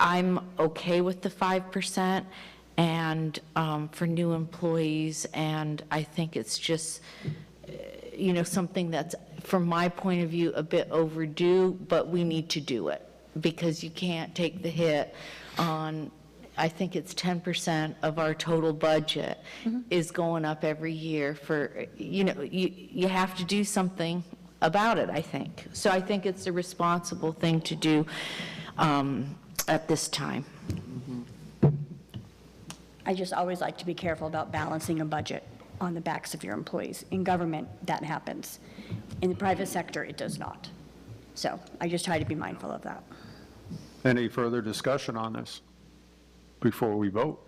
I'm okay with the 5% and um, for new employees, and I think it's just, eh, you know, something that's, from my point of view, a bit overdue, but we need to do it because you can't take the hit on, I think it's 10% of our total budget Mm-hmm. is going up every year for, you know, you, you have to do something about it, I think. So I think it's a responsible thing to do um, at this time. I just always like to be careful about balancing a budget on the backs of your employees. In government, that happens. In the private sector, it does not. So I just try to be mindful of that. Any further discussion on this before we vote?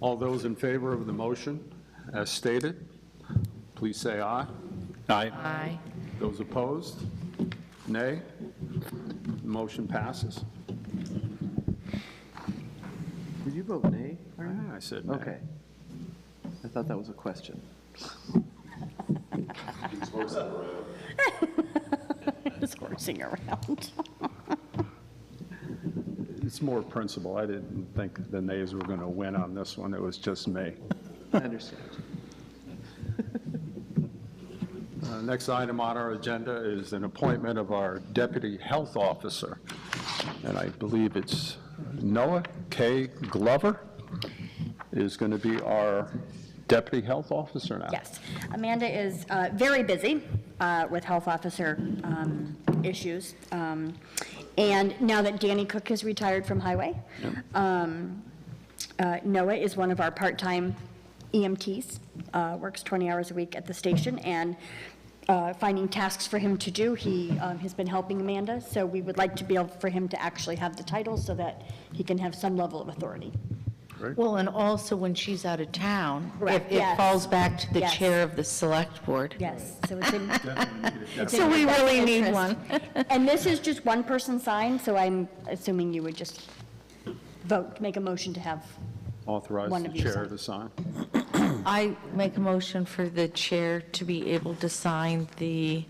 All those in favor of the motion as stated, please say aye. Aye. Aye. Those opposed? Nay? Motion passes. Did you vote nay? Arnie? I said nay. Okay. I thought that was a question. Just horsing around. It's more principle. I didn't think the nays were going to win on this one. It was just me. I understand. Uh, Next item on our agenda is an appointment of our deputy health officer. And I believe it's Noah K. Glover is going to be our deputy health officer now. Yes. Amanda is uh, very busy uh, with health officer um, issues. Um, And now that Danny Cook has retired from highway, um, uh, Noah is one of our part-time EMTs, uh, works 20 hours a week at the station, and uh, finding tasks for him to do, he um, has been helping Amanda, so we would like to be able for him to actually have the title so that he can have some level of authority. Well, and also when she's out of town, if Correct, it yes. falls back to the Yes. chair of the select board. Yes, so it's in, it's in So we your best really need interest. one. And this is just one person signed, so I'm assuming you would just vote, make a motion to have, Authorize One the of you chair sign. to sign. I make a motion for the chair to be able to sign the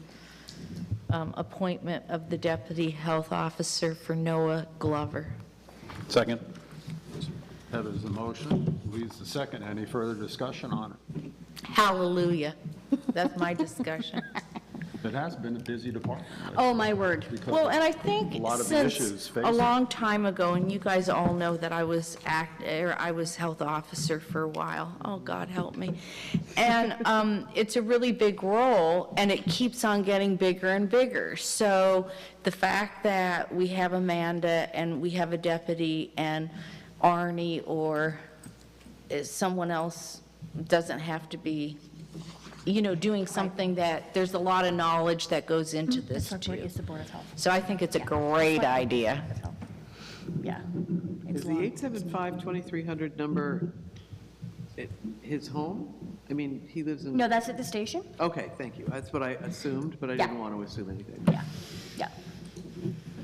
um, appointment of the deputy health officer for Noah Glover. Second. Heather's the motion. Leads the second. Any further discussion on it? Hallelujah. That's my discussion. It has been a busy department. oh, my word. uh, because Well, of- and I think A lot of since issues a facing- long time ago, and you guys all know that I was act, or I was health officer for a while. Oh, God help me. And um, it's a really big role, and it keeps on getting bigger and bigger. So the fact that we have Amanda and we have a deputy and Arnie or is someone else doesn't have to be, you know, doing something that, there's a lot of knowledge that goes into this Select too. Board is the Board of Health. So I think it's a great idea. Yeah. It's Is the long. 875-2300 number at his home? I mean, he lives in... No, that's at the station? Okay, thank you. That's what I assumed, but I Yeah. didn't want to assume anything. Yeah, yeah.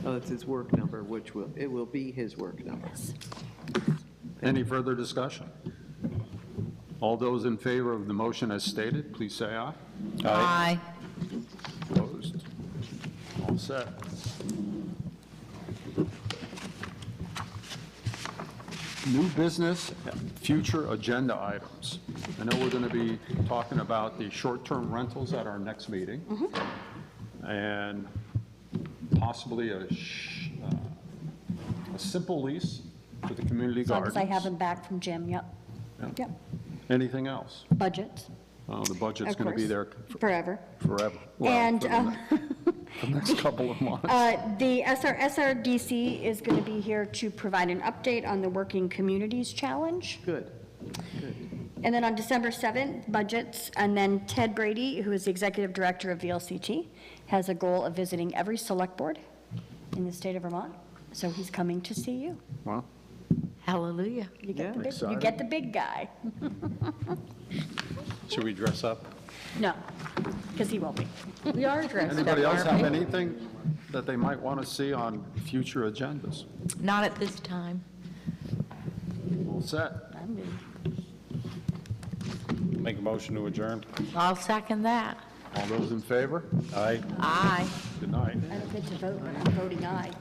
Oh, that's his work number, which will, it will be his work number. Any further discussion? All those in favor of the motion as stated, please say aye. Aye. Opposed? All set. New business, future agenda items. I know we're going to be talking about the short-term rentals at our next meeting. Mm-hmm. And possibly a, sh- uh, a simple lease for the community As long gardens. as I have them back from Jim, yep. Yeah. Yep, Anything else? budgets, Well, the budget's of going to be course. there Forever. forever. Well, And, for the um, ne- The next couple of months. Uh, The SR SRDC is going to be here to provide an update on the Working Communities Challenge. Good, good. And then on December 7th, budgets, and then Ted Brady, who is the executive director of VLCT, has a goal of visiting every select board in the state of Vermont, so he's coming to see you. Well, Hallelujah. You get the Yeah. big, you get the big guy. Should we dress up? No, because he won't be. We are dressed up, Anybody else have aren't anything that they might want to see on future agendas? we? Not at this time. All set? Make a motion to adjourn. I'll second that. All those in favor? Aye. Aye. denied. I don't get to vote, but I'm voting aye.